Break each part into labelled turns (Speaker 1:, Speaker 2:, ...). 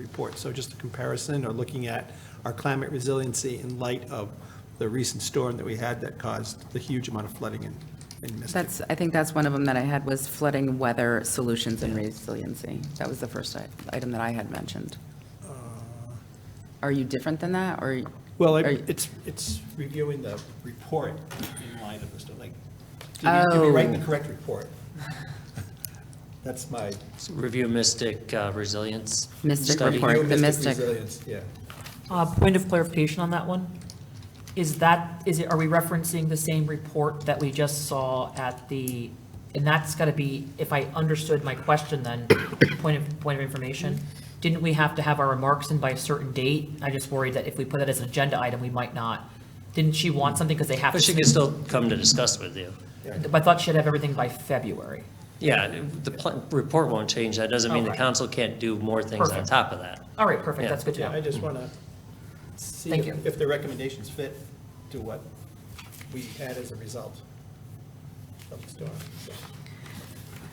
Speaker 1: report. So just a comparison or looking at our climate resiliency in light of the recent storm that we had that caused the huge amount of flooding in, in Mystic.
Speaker 2: That's, I think that's one of them that I had was flooding weather solutions and resiliency. That was the first i- item that I had mentioned.
Speaker 1: Uh.
Speaker 2: Are you different than that, or?
Speaker 1: Well,
Speaker 2: are
Speaker 1: it-
Speaker 2: you-
Speaker 1: it's, it's reviewing the report in light of the storm, like, did we- did we write the
Speaker 2: Oh.
Speaker 1: correct report? That's my.
Speaker 3: Review Mystic uh, Resilience.
Speaker 2: Mystic
Speaker 3: study.
Speaker 2: report. the Mystic.
Speaker 1: Resilience, Yeah.
Speaker 4: Uh, Point of clarification on that one. Is that, is it, are we referencing the same report that we just saw at the, and that's got to be, if I understood my question then, point of, point of information, didn't we have to have our remarks in by a certain date? I just worried that if we put that as an agenda item, we might not. Didn't she want something because they have to?
Speaker 3: But she could still come to discuss with you.
Speaker 4: But I thought she'd have everything by February.
Speaker 3: Yeah, the pl- report won't change. That doesn't mean
Speaker 2: Oh,
Speaker 3: the
Speaker 4: Okay.
Speaker 3: council can't do more things on
Speaker 4: Perfect.
Speaker 3: top of that.
Speaker 4: All right, perfect,
Speaker 3: Yeah.
Speaker 4: that's good to
Speaker 1: Yeah, I
Speaker 4: know.
Speaker 1: just want to see
Speaker 4: Thank you.
Speaker 1: if if the recommendations fit to what we had as a result of the storm. so.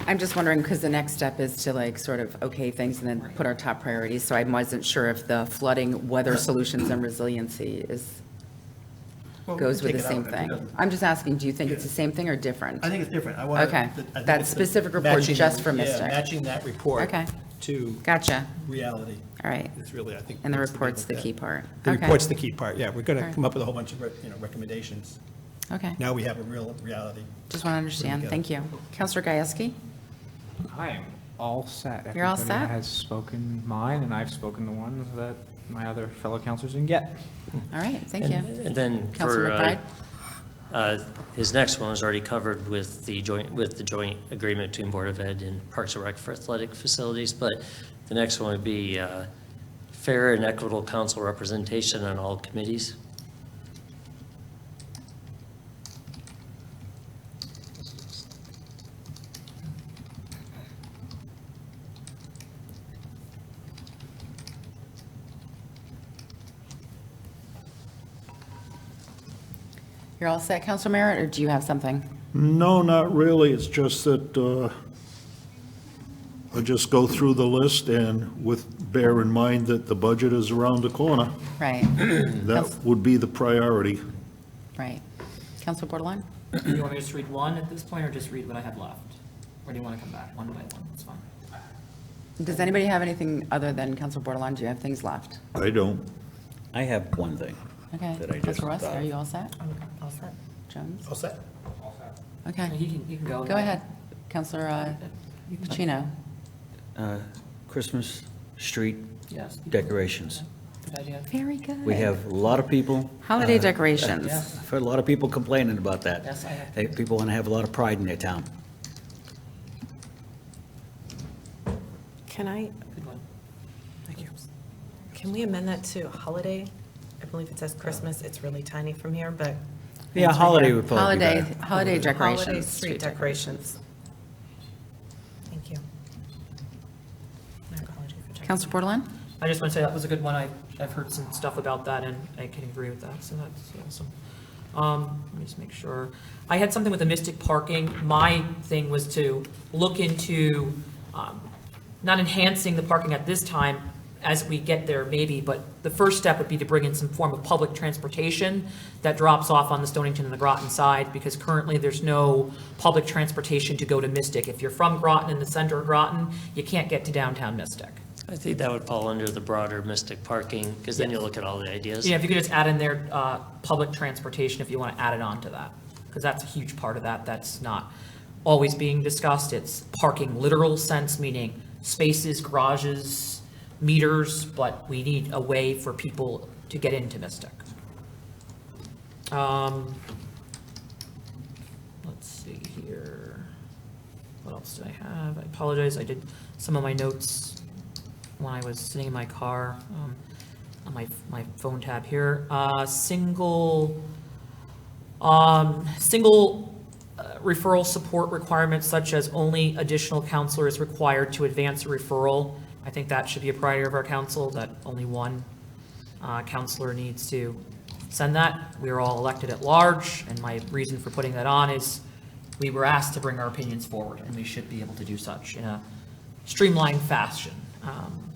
Speaker 2: I'm just wondering, because the next step is to like sort of okay things and then put our top priorities. So I wasn't sure if the flooding, weather solutions and resiliency is,
Speaker 1: Well, we
Speaker 2: goes
Speaker 1: can
Speaker 2: with the
Speaker 1: take it
Speaker 2: same
Speaker 1: out if it
Speaker 2: thing.
Speaker 1: doesn't-
Speaker 2: I'm just asking, do you think it's the same thing or different?
Speaker 1: I think it's different. I want.
Speaker 2: Okay. That specific report just for Mystic.
Speaker 1: Matching that report.
Speaker 2: Okay.
Speaker 1: To
Speaker 2: Gotcha.
Speaker 1: reality
Speaker 2: All right.
Speaker 1: is really, I think.
Speaker 2: And the
Speaker 1: what's
Speaker 2: report's
Speaker 1: big
Speaker 2: the
Speaker 1: look
Speaker 2: key
Speaker 1: at.
Speaker 2: part.
Speaker 1: The
Speaker 2: Okay.
Speaker 1: report's the key part, yeah. We're going
Speaker 2: All
Speaker 1: to
Speaker 2: right.
Speaker 1: come up with a whole bunch of, re- you know, recommendations.
Speaker 2: Okay.
Speaker 1: Now we have a real reality.
Speaker 2: Just want to understand.
Speaker 1: together.
Speaker 2: Thank you. Counselor Gieske?
Speaker 5: I'm all set.
Speaker 2: You're all set?
Speaker 5: Everybody has spoken mine, and I've spoken the one that my other fellow counselors didn't get.
Speaker 2: All right, thank
Speaker 3: And-
Speaker 2: you.
Speaker 3: And then
Speaker 2: Counselor
Speaker 3: for, uh,
Speaker 2: McBride?
Speaker 3: uh, his next one was already covered with the joint, with the joint agreement between Board of Ed and Parks and Rec for athletic facilities, but the next one would be uh, fair and equitable council representation on all committees.
Speaker 2: You're all set, Counselor Merritt, or do you have something?
Speaker 6: No, not really. It's just that uh, I just go through the list and with, bear in mind that the budget is around the corner.
Speaker 2: Right,
Speaker 6: That would be the priority.
Speaker 2: right. Counselor Bordelon?
Speaker 4: Do you want me to just read one at this point, or just read what I have left? Or do you want to come back one by one? It's fine.
Speaker 2: Does anybody have anything other than Counselor Bordelon? Do you have things left?
Speaker 6: I don't.
Speaker 7: I have one thing.
Speaker 2: Okay.
Speaker 7: That I just uh,
Speaker 2: Counselor Russ,
Speaker 7: thought
Speaker 2: are
Speaker 7: of.
Speaker 2: you all set?
Speaker 4: I'm all set.
Speaker 2: Jones?
Speaker 1: All set?
Speaker 2: Okay,
Speaker 4: He can, he can go.
Speaker 2: go ahead. Counselor uh, Pacino?
Speaker 7: Uh, Christmas street
Speaker 4: Yes.
Speaker 7: decorations.
Speaker 4: Good idea.
Speaker 2: Very good.
Speaker 7: We have a lot of people.
Speaker 2: Holiday
Speaker 7: uh,
Speaker 2: decorations.
Speaker 7: I've heard a lot of people complaining about that.
Speaker 4: Yes, I have.
Speaker 7: They- People want to have a lot of pride in their town.
Speaker 8: Can I,
Speaker 4: Good one.
Speaker 8: thank you. Can we amend that to holiday? I believe it says Christmas, it's really tiny from here, but.
Speaker 7: Yeah, holiday would probably be
Speaker 2: Holiday,
Speaker 7: better.
Speaker 2: holiday
Speaker 8: Holiday
Speaker 2: decorations.
Speaker 8: street decorations. Thank you. My apology for checking.
Speaker 2: Counselor Bordelon?
Speaker 4: I just want to say that was a good one. I, I've heard some stuff about that and I can agree with that, so that's awesome. Um, let me just make sure. I had something with the Mystic parking. My thing was to look into, um, not enhancing the parking at this time as we get there maybe, but the first step would be to bring in some form of public transportation that drops off on the Stonington and the Groton side, because currently there's no public transportation to go to Mystic. If you're from Groton, in the center of Groton, you can't get to downtown Mystic.
Speaker 3: I think that would fall under the broader Mystic parking, because then you look at all the ideas.
Speaker 4: Yeah, if you could just add in there, uh, public transportation, if you want to add it on to that, because that's a huge part of that, that's not always being discussed, it's parking literal sense, meaning spaces, garages, meters, but we need a way for people to get into Mystic. Um, Let's see here, what else did I have? I apologize, I did some of my notes when I was sitting in my car, um, on my, my phone tab here. Uh, single, um, single uh, referral support requirements such as only additional counselor is required to advance a referral. I think that should be a priority of our council, that only one uh, counselor needs to send that. We are all elected at large, and my reason for putting that on is we were asked to bring our opinions forward, and we should be able to do such in a streamlined fashion. Um,